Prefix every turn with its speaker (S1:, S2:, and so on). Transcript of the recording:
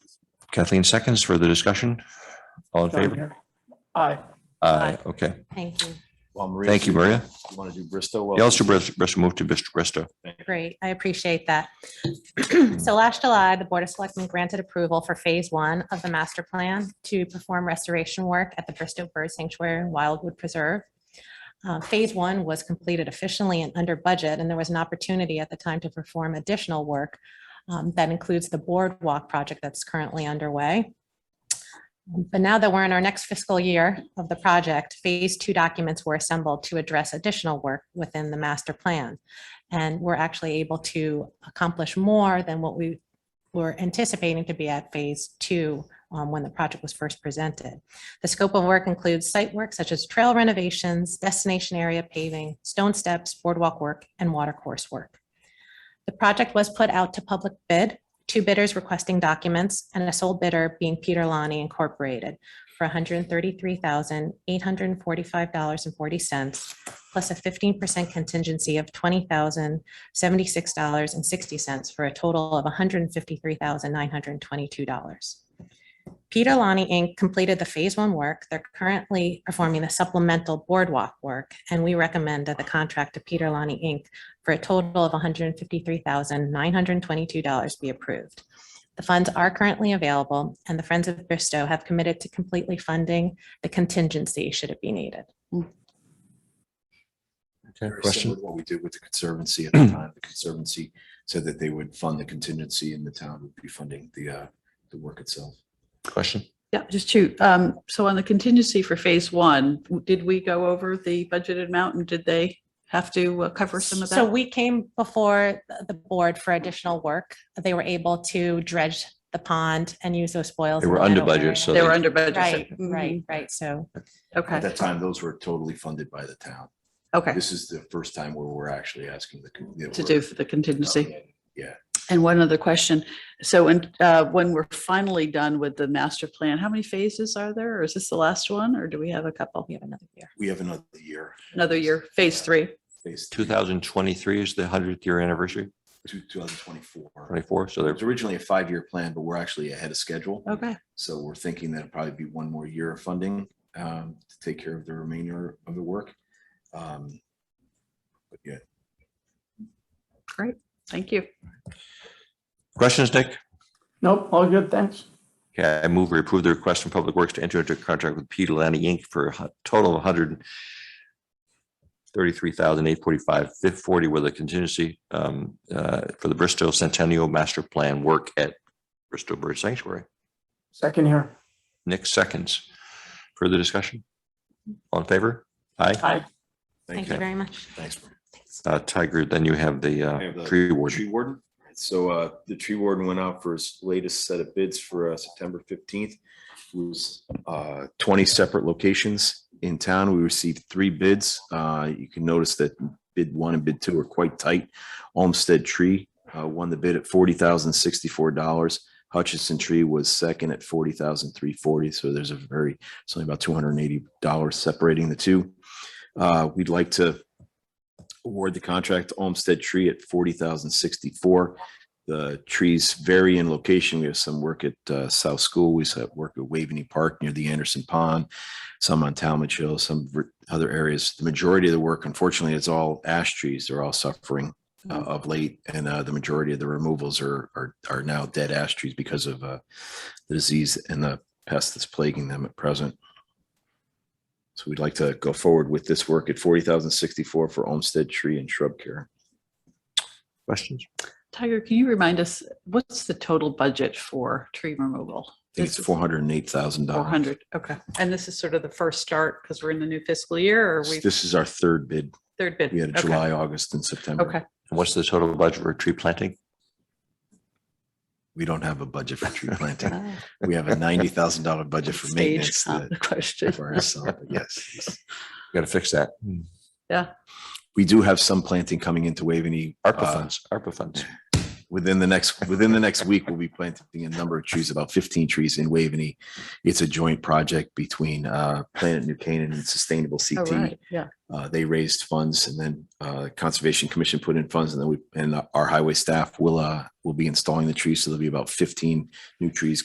S1: Kathleen seconds for the discussion. All in favor?
S2: Aye.
S1: Aye. Okay.
S3: Thank you.
S4: Well, Maria,
S1: Thank you, Maria.
S4: You want to do Bristol? Well,
S1: The Ulster Bristol Bristol moved to Bristol Bristol.
S3: Great. I appreciate that. So last July, the Board of Selectmen granted approval for Phase One of the master plan to perform restoration work at the Bristol Bird Sanctuary and Wildwood Preserve. Uh, Phase One was completed efficiently and under budget, and there was an opportunity at the time to perform additional work. um, That includes the boardwalk project that's currently underway. But now that we're in our next fiscal year of the project, Phase Two documents were assembled to address additional work within the master plan and we're actually able to accomplish more than what we were anticipating to be at phase two um, when the project was first presented. The scope of work includes site work such as trail renovations, destination area paving, stone steps, boardwalk work, and water course work. The project was put out to public bid, two bidders requesting documents, and a sole bidder being Peter Lonnie Incorporated for $133,845.40 plus a fifteen percent contingency of twenty thousand seventy-six dollars and sixty cents for a total of one hundred and fifty-three thousand nine hundred and twenty-two dollars. Peter Lonnie Inc. completed the phase one work. They're currently performing the supplemental boardwalk work, and we recommend that the contract to Peter Lonnie Inc. for a total of one hundred and fifty-three thousand nine hundred and twenty-two dollars be approved. The funds are currently available, and the Friends of Bristow have committed to completely funding the contingency should it be needed.
S4: very
S1: Question?
S4: similar to What we did with the Conservancy at the time, the Conservancy said that they would fund the contingency and the town would be funding the, uh, the work itself.
S1: Question?
S2: Yeah, just two. Um, so on the contingency for phase one, did we go over the budgeted amount and did they have to uh, cover some of that?
S3: So we came before th- the board for additional work. They were able to dredge the pond and use those spoils.
S1: They
S3: in
S1: were
S3: that
S1: under
S3: area.
S1: budget, so
S2: They were under budget. so-
S3: Right,
S2: Mhm.
S3: right, right. So
S4: At
S2: Okay,
S4: that time, those were totally funded by the town.
S2: okay,
S4: This is the first time where we're actually asking the. con- that
S2: to
S4: we're- uh,
S2: do for the contingency.
S4: Yeah.
S2: And one other question. So when, uh, when we're finally done with the master plan, how many phases are there? Or is this the last one or do we have a couple?
S3: we have another year.
S4: We have another year.
S2: Another year, phase three?
S4: Phase two,
S1: Two thousand twenty-three is the hundredth year anniversary,
S4: two thousand twenty-four.
S1: twenty-four, so
S4: So
S1: they're
S4: there's originally a five-year plan, but we're actually ahead of schedule.
S2: Okay,
S4: So we're thinking that'll probably be one more year of funding um, to take care of the remainder of the work. Um, But yeah,
S2: great. Thank you.
S1: Questions, Nick?
S5: Nope, all good, thanks.
S1: Okay, I move we approve the request from Public Works to enter into a contract with Peter Lanny Inc. for a hu- total of one hundred thirty-three thousand eight forty-five, fifth forty with a contingency um, uh, for the Bristol Centennial Master Plan work at Bristol Bird Sanctuary.
S5: Second here.
S1: Nick seconds. Further discussion? All in favor? Aye.
S5: Aye.
S3: Thank
S4: thank you.
S3: you very much.
S4: Thanks. Maria.
S3: Thanks.
S1: Uh, Tiger, then you have the
S4: I have
S1: uh,
S4: the
S1: tree warden.
S4: Tree warden. So uh, the tree warden went out for his latest set of bids for uh, September fifteenth. It was uh, twenty separate locations in town. We received three bids. Uh, You can notice that bid one and bid two are quite tight. Olmsted Tree uh, won the bid at forty thousand sixty-four dollars. Hutchinson Tree was second at forty thousand three forty. So there's a very, it's only about two hundred and eighty dollars separating the two. Uh, We'd like to award the contract to Olmsted Tree at forty thousand sixty-four. The trees vary in location. We have some work at uh, South School. We have work at Waveney Park near the Anderson Pond, some on Talmadge Hill, some ver- other areas. The majority of the work, unfortunately, is all ash trees. They're all suffering uh, of late, and uh, the majority of the removals are are are now dead ash trees because of uh, the disease and the pest that's plaguing them at present. So we'd like to go forward with this work at forty thousand sixty-four for Olmsted Tree and Shrub Care.
S1: Questions?
S2: Tiger, can you remind us, what's the total budget for tree removal?
S4: I think it's
S2: This is-
S4: four hundred and eight thousand
S2: Four
S4: dollars.
S2: hundred, okay. And this is sort of the first start because we're in the new fiscal year or we,
S4: This is our third bid.
S2: third bid?
S4: We had
S2: Okay,
S4: July, August, and September.
S2: Okay,
S1: And what's the total budget for tree planting?
S4: We don't have a budget for tree planting. We have a ninety thousand dollar budget for
S2: stage,
S4: maintenance.
S2: not
S4: that-
S2: the question.
S4: for ourselves, but Yes.
S1: Got to fix that.
S4: Hmm. We do have some planting coming into Waveney.
S1: ARPA
S4: uh,
S1: funds, ARPA funds.
S4: within the next within the next week we'll be planting a number of trees about 15 trees in waveney it's a joint project between uh planet new canaan and sustainable
S2: Oh,
S4: ct
S2: right, yeah.
S4: uh, they raised funds and then uh conservation commission put in funds and then we and our highway staff will uh will be installing the trees so there'll be about 15 new trees